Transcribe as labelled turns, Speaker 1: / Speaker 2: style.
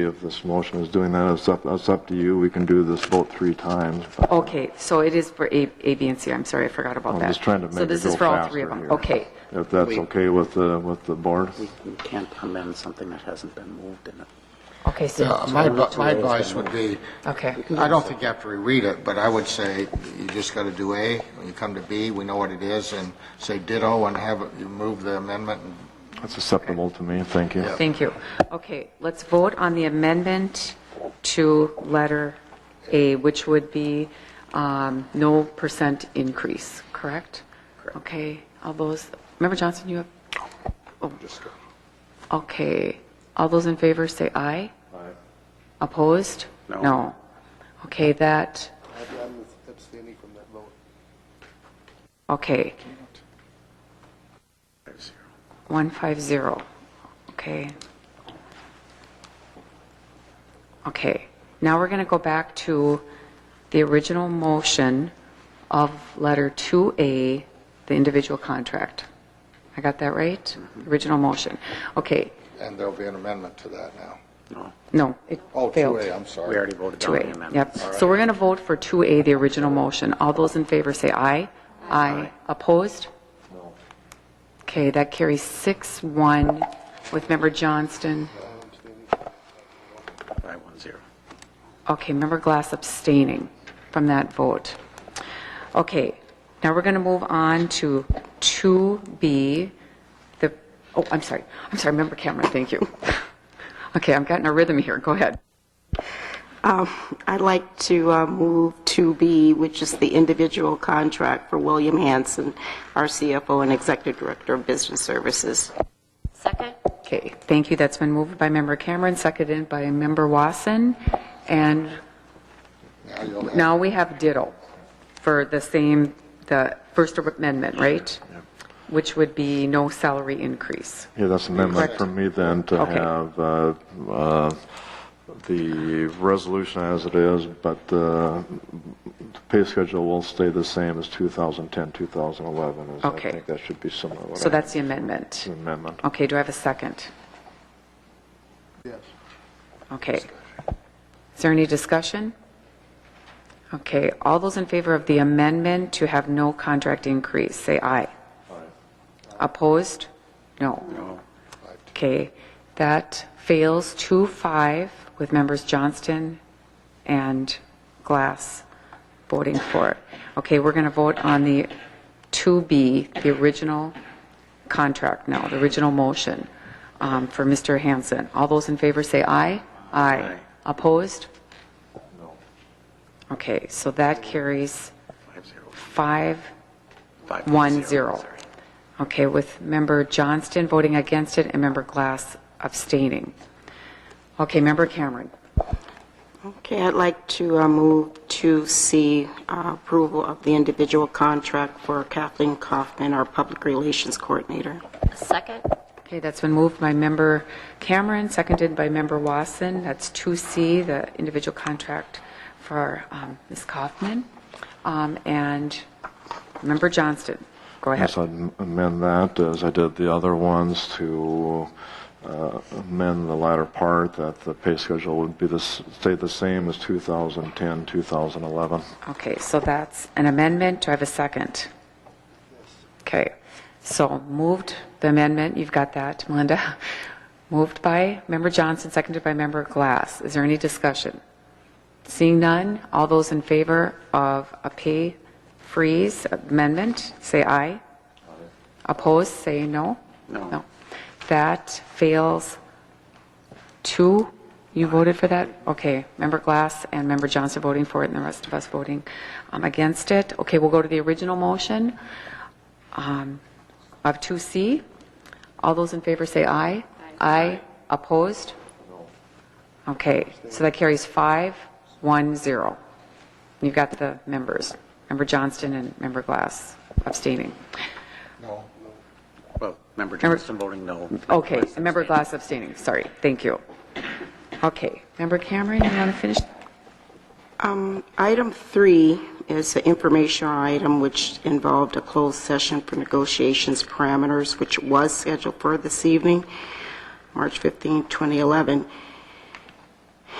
Speaker 1: If this motion is doing that, it's up, it's up to you. We can do this vote three times. but-
Speaker 2: Okay, so it is for A, A, B, and C. I'm sorry, I forgot about
Speaker 1: I'm
Speaker 2: that.
Speaker 1: just trying to make it go
Speaker 2: So this is for all three of
Speaker 1: faster
Speaker 2: them.
Speaker 1: here.
Speaker 2: Okay.
Speaker 1: If that's okay with the, with the board?
Speaker 3: We we can't amend something that hasn't been moved in it.
Speaker 2: Okay,
Speaker 4: Yeah,
Speaker 2: so,
Speaker 4: my, advi- my advice would be,
Speaker 2: okay.
Speaker 4: I don't think you have to reread it, but I would say you just got to do A, when you come to B, we know what it is, and say ditto and have, it- you move the amendment and
Speaker 1: That's acceptable to me, thank you.
Speaker 2: Thank you. Okay, let's vote on the amendment to letter A, which would be um, no percent increase, correct? Okay, all those, Member Johnson, you have? oh. Okay, all those in favor say aye? Aye. Opposed?
Speaker 3: No.
Speaker 2: No. Okay, that,
Speaker 5: I'm abstaining from that vote.
Speaker 2: okay,
Speaker 3: Five zero.
Speaker 2: 150, okay. Okay, now we're going to go back to the original motion of letter 2A, the individual contract. I got that right? Original motion. Okay,
Speaker 4: And there'll be an amendment to that now.
Speaker 3: No,
Speaker 2: no, it
Speaker 4: Oh,
Speaker 2: failed.
Speaker 4: 2A, I'm
Speaker 3: we
Speaker 4: sorry.
Speaker 3: already voted on the
Speaker 2: 2A,
Speaker 3: amendment.
Speaker 2: Uh, yep. So we're going to vote for 2A, the original motion. All those in favor say aye. Aye. Opposed? Okay, that carries 6-1 with Member Johnston.
Speaker 3: Five one zero.
Speaker 2: Okay, Member Glass abstaining from that vote. Okay, now we're going to move on to 2B, the, oh, I'm sorry, I'm sorry, Member Cameron, thank you. Okay, I'm getting a rhythm here, go ahead.
Speaker 6: I'd like to uh, move to b which is the individual contract for William Hanson, our CFO and Executive Director of Business Services.
Speaker 7: Second?
Speaker 2: Okay, thank you, that's been moved by Member Cameron, seconded by Member Wasson, and
Speaker 4: Now you'll have-
Speaker 2: now we have ditto for the same, the First Amendment, right? Which would be no salary increase.
Speaker 1: Yeah, that's an amendment from me then to
Speaker 2: Okay.
Speaker 1: have uh, uh, the resolution as it is, but uh, the pay schedule will stay the same as 2010, 2011. is-
Speaker 2: Okay.
Speaker 1: I think that should be similar. what
Speaker 2: So
Speaker 1: I-
Speaker 2: that's the amendment.
Speaker 1: the Amendment.
Speaker 2: Okay, do I have a second?
Speaker 5: Yes.
Speaker 2: Okay. Is there any discussion? Okay, all those in favor of the amendment to have no contract increase, say aye. Opposed? No. No. Okay, that fails 2-5 with members Johnston and Glass voting for it. Okay, we're going to vote on the 2B, the original contract now, the original motion um, for Mr. Hanson. All those in favor say aye. Aye. Opposed? No. Okay, so that carries
Speaker 3: Five zero.
Speaker 2: five,
Speaker 3: Five
Speaker 2: one, zero.
Speaker 3: sorry.
Speaker 2: Okay, with Member Johnston voting against it and Member Glass abstaining. Okay, Member Cameron.
Speaker 6: Okay, I'd like to uh, move to c uh, approval of the individual contract for Kathleen Kaufman, our Public Relations Coordinator.
Speaker 7: Second?
Speaker 2: Okay, that's been moved by Member Cameron, seconded by Member Wasson. That's 2C, the individual contract for um, Ms. Kaufman. Um, And Member Johnston, go ahead.
Speaker 1: Yes, I'd amend that, as I did the other ones, to uh, amend the latter part, that the pay schedule would be the, s- stay the same as 2010, 2011.
Speaker 2: Okay, so that's an amendment. Do I have a second? Okay, so moved, the amendment, you've got that, Melinda. Moved by Member Johnson, seconded by Member Glass. Is there any discussion? Seeing none, all those in favor of a pay freeze amendment, say aye. Opposed, say no.
Speaker 3: No.
Speaker 2: That fails two. You voted for that? Okay. Member Glass and Member Johnson voting for it, and the rest of us voting um, against it. Okay, we'll go to the original motion um, of 2C. All those in favor say aye. Aye. Opposed? No. Okay, so that carries five, one, zero. You've got the members, Member Johnston and Member Glass abstaining.
Speaker 3: Well, Member Johnston voting no.
Speaker 2: Okay, and Member Glass abstaining, sorry, thank you. Okay, Member Cameron, you want to finish?
Speaker 6: Um, Item three is an informational item which involved a closed session for negotiations parameters, which was scheduled for this evening, March 15, 2011.